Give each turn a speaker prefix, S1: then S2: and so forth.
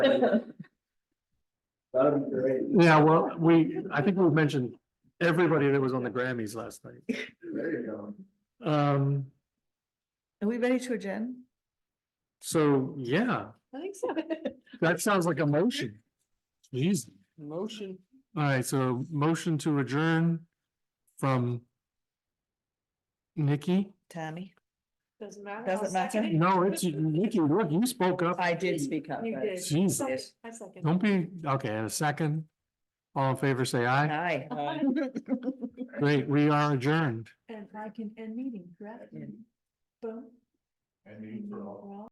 S1: That'd be great.
S2: Yeah, well, we, I think we mentioned everybody that was on the Grammys last night.
S1: There you go.
S2: Um,
S3: Are we ready to adjourn?
S2: so, yeah,
S3: I think so.
S2: that sounds like a motion. Jeez.
S4: Motion.
S2: All right, so motion to adjourn from Nikki?
S3: Tammy,
S4: Doesn't matter.
S3: Doesn't
S4: I'll
S3: matter.
S4: second it.
S2: No, it's Nikki, look, you spoke up.
S3: I did speak up.
S4: You
S3: but-
S4: did.
S2: Jesus.
S4: I second.
S2: Don't be, okay, and a second. All in favor, say aye.
S3: Aye.
S2: Great, we are adjourned.
S4: And I can end meeting, correct?
S3: Yeah.
S4: Boom.
S1: I mean, for all.
S4: We're all-